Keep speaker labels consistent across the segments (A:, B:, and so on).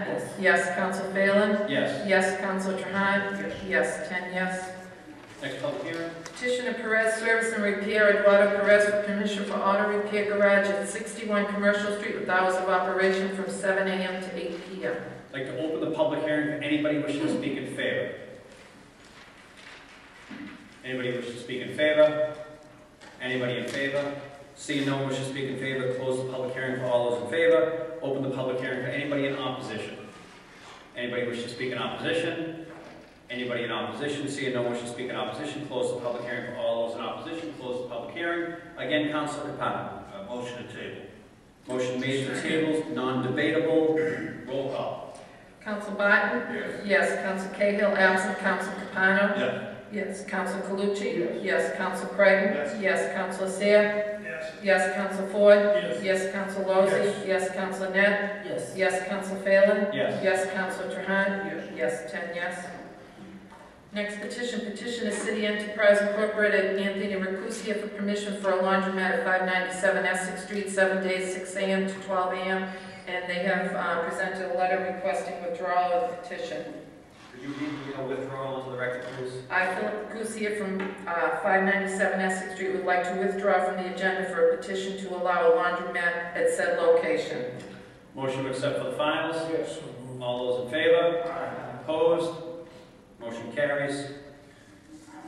A: minutes. Yes, Counsel Phelan.
B: Yes.
A: Yes, Counsel Trahan. Yes, ten yes.
B: Next public hearing?
A: Petition of Perez Service and Repair Eduardo Perez for permission for auto repair garage at 61 Commercial Street with hours of operation from 7 a.m. to 8 p.m.
B: I'd like to open the public hearing for anybody wishing to speak in favor. Anybody wishing to speak in favor? Anybody in favor? Seeing no one wishing to speak in favor, close the public hearing for all those in favor. Open the public hearing for anybody in opposition. Anybody wishing to speak in opposition? Anybody in opposition? Seeing no one wishing to speak in opposition, close the public hearing for all those in opposition. Close the public hearing. Again, Council Capano.
C: Uh, Motion to table.
B: Motion made for tables, non-debatable. Roll call.
A: Counsel Barton.
C: Yes.
A: Yes, Counsel Cahill, absent Counsel Capano.
C: Yes.
A: Yes, Counsel Calucci. Yes, Counsel Creighton.
C: Yes.
A: Yes, Counsel Seh.
C: Yes.
A: Yes, Counsel Ford.
C: Yes.
A: Yes, Counsel Lozey. Yes, Counsel Net.
D: Yes.
A: Yes, Counsel Phelan.
B: Yes.
A: Yes, Counsel Trahan.
C: Yes.
A: Yes, ten yes. Next petition, petition of City Enterprise Incorporated, Anthony Mercusia for permission for a laundromat at 597 Essex Street, seven days, 6 a.m. to 12 a.m. And they have uh, presented a letter requesting withdrawal of the petition.
B: Could you read the withdrawal into the record, please?
A: I, Philip Kusia from uh, 597 Essex Street, would like to withdraw from the agenda for a petition to allow a laundromat at said location.
B: Motion to accept for the finals.
C: Yes.
B: All those in favor? Opposed? Motion carries.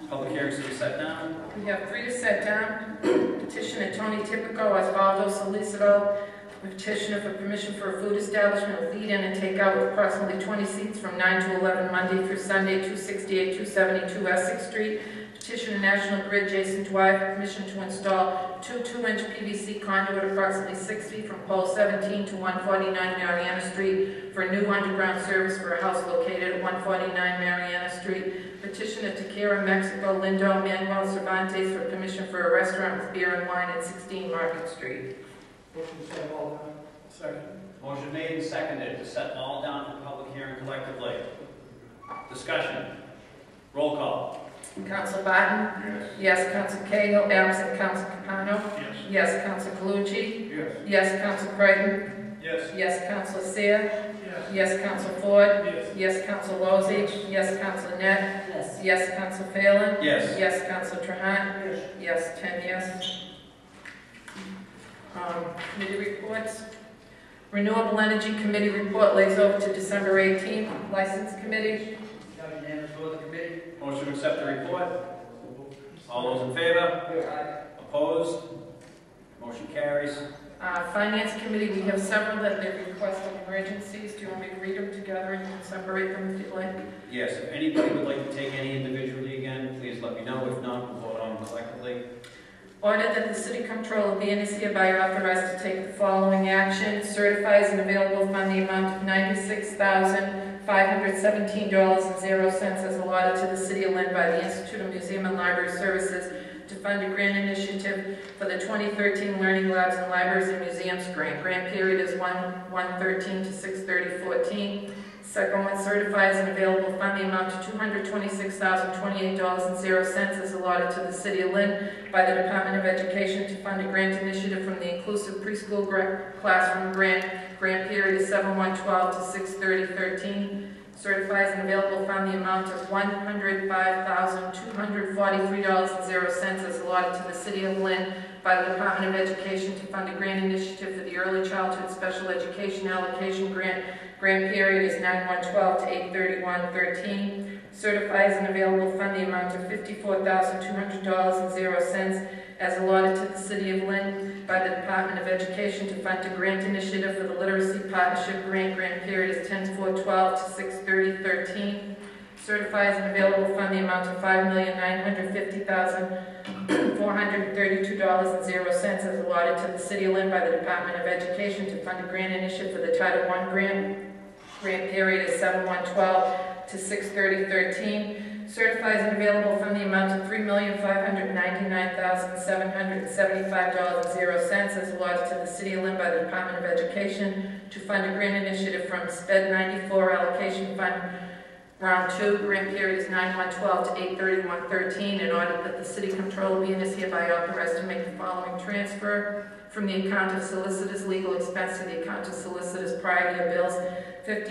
B: Public hearings to be set now.
A: We have three to set down. Petitioner Tony Tipico, Osvaldo Solicito, petitioner for permission for a food establishment with lead-in and takeout with approximately 20 seats from 9 to 11 Monday through Sunday, 268, 272 Essex Street. Petitioner National Grid, Jason Dwyer, for permission to install two 2-inch PVC conduit approximately 6 feet from pole 17 to 149 Mariana Street for a new underground service for a house located at 149 Mariana Street. Petition of Tequila Mexico Lindo Manuel Cervantes for permission for a restaurant with beer and wine at 16 Market Street.
C: Motion to set all down. Second.
B: Motion made and seconded to set all down for public hearing collectively. Discussion. Roll call.
A: Council Barton?
C: Yes.
A: Yes, Council Cahill, absent Council Capano?
C: Yes.
A: Yes, Council Calucci?
C: Yes.
A: Yes, Council Creighton?
C: Yes.
A: Yes, Council Seer?
C: Yes.
A: Yes, Council Ford?
C: Yes.
A: Yes, Council Lozey? Yes, Council Net?
D: Yes.
A: Yes, Council Phelan?
B: Yes.
A: Yes, Council Trahan?
C: Yes.
A: Yes, ten yes. Um, Committee reports. Renewable Energy Committee report lays over to December 18th. License Committee.
D: Have unanimous vote of the committee?
B: Motion to accept the report. All those in favor?
D: Aye.
B: Opposed? Motion carries.
A: Uh, Finance Committee, we have several that they requested emergencies. Do you want me to read them together and you can separate them if you'd like?
B: Yes, if anybody would like to take any individually again, please let me know. If not, we'll vote on them collectively.
A: Order that the city comptroller be and is hereby authorized to take the following action. Certifies an available fund the amount of ninety-six thousand, five hundred seventeen dollars and zero cents as allotted to the city of Lynn by the Institute of Museum and Library Services to fund a grant initiative for the twenty thirteen Learning Labs and Libraries and Museums Grant. Grant period is one, one thirteen to six thirty fourteen. Second one, certifies an available fund the amount of two hundred twenty-six thousand, twenty-eight dollars and zero cents as allotted to the city of Lynn by the Department of Education to fund a grant initiative from the Inclusive Preschool Gra- Classroom Grant. Grant period is 7/112 to 6/30/13. Certifies an available fund the amount of $105,243.00 as allotted to the City of Lynn by the Department of Education to fund a grant initiative for the Early Childhood Special Education Allocation Grant. Grant period is 9/112 to 8/31/13 certifies an available fund the amount of fifty-four thousand two hundred dollars and zero cents as allotted to the City of Lynn by the Department of Education to fund a grant initiative for the Literacy Partnership Grant. Grant period is ten four twelve to six thirty thirteen. Certifies an available fund the amount of five million nine hundred fifty thousand four hundred thirty-two dollars and zero cents as allotted to the City of Lynn by the Department of Education to fund a grant initiative for the Title I grant. Grant period is seven one twelve to 6/30/13, certifies an available fund the amount of $3,599,775.00 as allotted to the City of Lynn by the Department of Education to fund a grant initiative from SPED 94 Allocation Fund Round 2. Grant period is 9/112 to 8/31/13. In order that the city controller be and is hereby authorized to make the following transfer from the account of solicitors' legal expense to the account of solicitors' prior year bills, fifty.